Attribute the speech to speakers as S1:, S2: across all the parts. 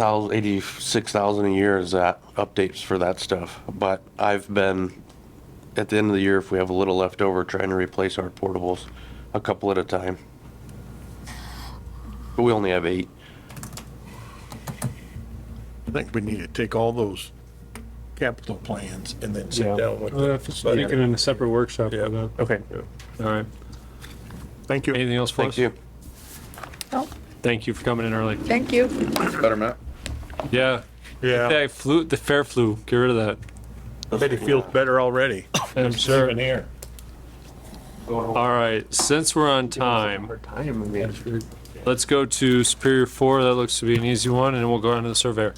S1: thousand, eighty-six thousand a year is that updates for that stuff. But I've been, at the end of the year, if we have a little left over, trying to replace our portables a couple at a time. But we only have eight.
S2: I think we need to take all those capital plans and then sit down with
S3: We'll have to Speak it
S2: them.
S3: in Uh, a separate workshop.
S2: Yeah.
S3: Okay. All right.
S2: Thank you.
S3: Anything else for us?
S1: Thank you.
S4: No,
S3: Thank you for coming in early.
S4: thank you.
S5: Better map.
S3: Yeah.
S2: Yeah,
S3: Yeah, flu, the fair flu, get rid of that.
S2: bet he feels better already.
S3: I'm sure.
S2: here.
S3: All right, since we're on time,
S1: Time, I mean.
S3: let's go to Superior Four. That looks to be an easy one, and we'll go on to the surveyor.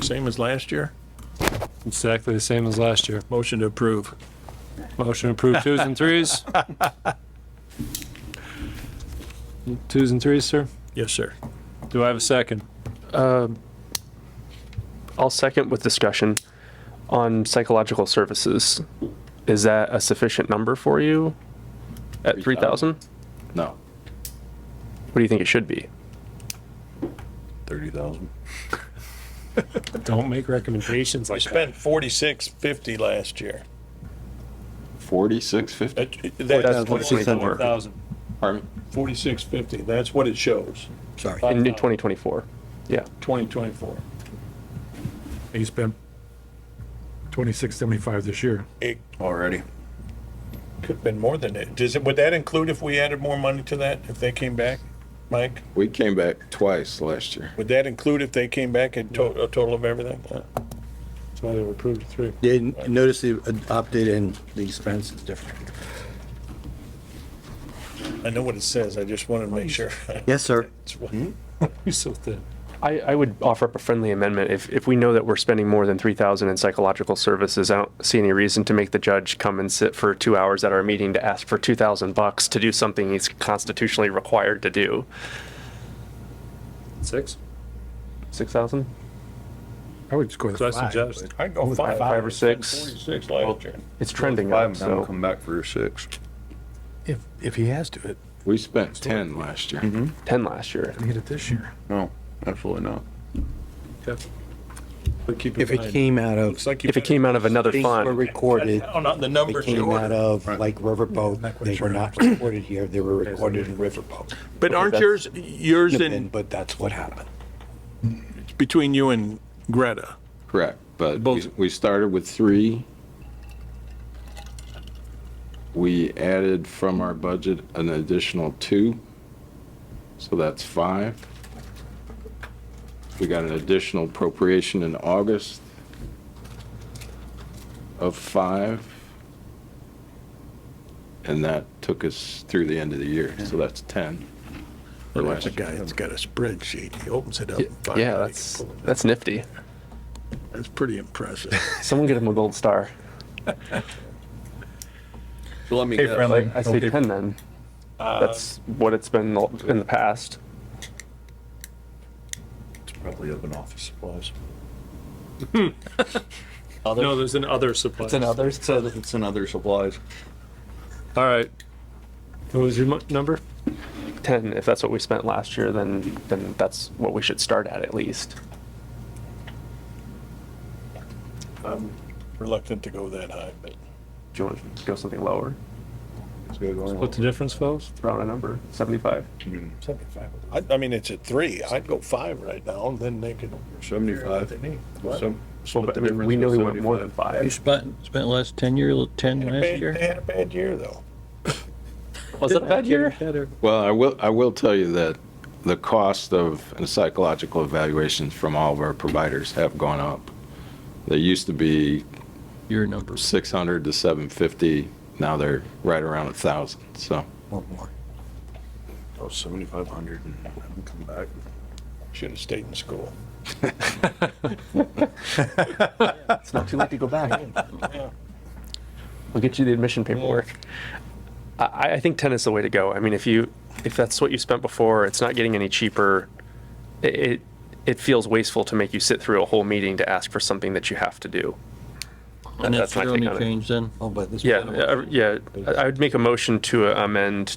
S2: Same as last year.
S3: Exactly the same as last year.
S2: Motion to approve.
S3: Motion approved twos and threes. Twos and threes, sir.
S2: Yes, sir.
S3: Do I have a second?
S6: I'll second with discussion on psychological services. Is that a sufficient number for you at 3,000? What
S5: No.
S6: do you think it should be?
S5: Thirty thousand.
S3: Don't make recommendations
S2: We
S3: like
S2: spent forty-six fifty last year.
S5: Forty-six fifty.
S2: That- That's
S6: what it says on work.
S3: Thousand.
S5: Pardon
S2: forty-six fifty. That's what it shows,
S6: In 2024. Yeah.
S2: twenty twenty-four.
S7: He spent twenty-six seventy-five this year.
S2: It
S5: me. Already.
S2: could have been more than that. Does it, would that include if we added more money to that, if they came back? Mike,
S5: We came back twice last year.
S2: would that include if they came back in to, a total of everything? Uh,
S3: That's why they were approved at three.
S8: They notice the adopted and the expense is different.
S2: I know what it says. I just wanted to make sure.
S8: Yes, sir.
S2: It's what-
S3: You're so thin.
S6: I, I would offer up a friendly amendment. If, if we know that we're spending more than 3,000 in psychological services, I don't see any reason to make the judge come and sit for two hours at our meeting to ask for 2,000 bucks to do something he's constitutionally required to do.
S3: Six?
S6: 6,000?
S7: I would just go with
S3: So I
S7: five.
S3: suggest.
S2: I go five.
S6: Five or six.
S2: Forty-six last year.
S6: It's trending up,
S5: Five, now
S6: so.
S5: come back for your six.
S7: If, if he has to, it,
S5: We spent ten last year.
S6: 10 last year.
S7: he hit it this year.
S5: Mm-hmm. No, absolutely not.
S2: But keep
S8: If
S2: in
S8: it
S2: mind-
S8: came out of
S2: Looks like you
S6: If it
S2: better-
S6: came out of another
S8: things were
S6: fund,
S8: recorded,
S2: Oh, not the
S8: they
S2: numbers you
S8: came out
S2: ordered.
S8: of like Riverboat, they were not recorded here, they were recorded in Riverboat.
S2: But aren't yours, yours in,
S8: But that's what happened.
S2: between you and Greta?
S5: Correct, but we,
S2: Both.
S5: we started with three. We added from our budget an additional two, so that's five. We got an additional appropriation in August of five. And that took us through the end of the year, so that's 10. for
S2: There's a
S5: last year.
S2: guy that's got a spreadsheet. He opens it up. and finds
S6: yeah,
S2: out he
S6: that's,
S2: can pull it.
S6: that's nifty.
S2: That's pretty impressive.
S6: Someone get him a gold star.
S9: So let me
S7: Hey,
S9: guess.
S7: friendly.
S6: I say ten then. That's what it's been in the past.
S2: Probably up in office supplies.
S3: No, there's an other supply.
S9: It's another, it says it's another supplies.
S3: All right. What was your mu- number?
S6: Ten, if that's what we spent last year, then then that's what we should start at at least.
S2: Reluctant to go that high, but
S6: Do you want to go something lower?
S3: What's the difference, fellas?
S6: Throw out a number, seventy-five.
S2: seventy-five. I, I mean, it's at three. I'd go five right now and then they could.
S5: Seventy-five. Some-
S6: Well, but I mean, we know he went more than five.
S9: Spent, spent last ten year, ten
S2: They had a bad- They had a bad year though.
S6: Was it a bad year?
S5: Well, I will, I will tell you that the cost of psychological evaluations from all of our providers have gone up. They used to be
S9: Your number.
S5: 600 to 750, now they're right around 1,000, so. Oh, 7,500.
S2: Should have stayed in school.
S6: It's not too late to go back. We'll get you the admission paperwork. I, I think ten is the way to go. I mean, if you, if that's what you spent before, it's not getting any cheaper. It, it- it feels wasteful to make you sit through a whole meeting to ask for something that you have to do.
S10: And that's
S11: That's my
S10: the
S11: take
S10: only
S11: on it.
S10: change then?
S9: Oh, but this.
S6: Yeah, uh, yeah, I I would make a motion to amend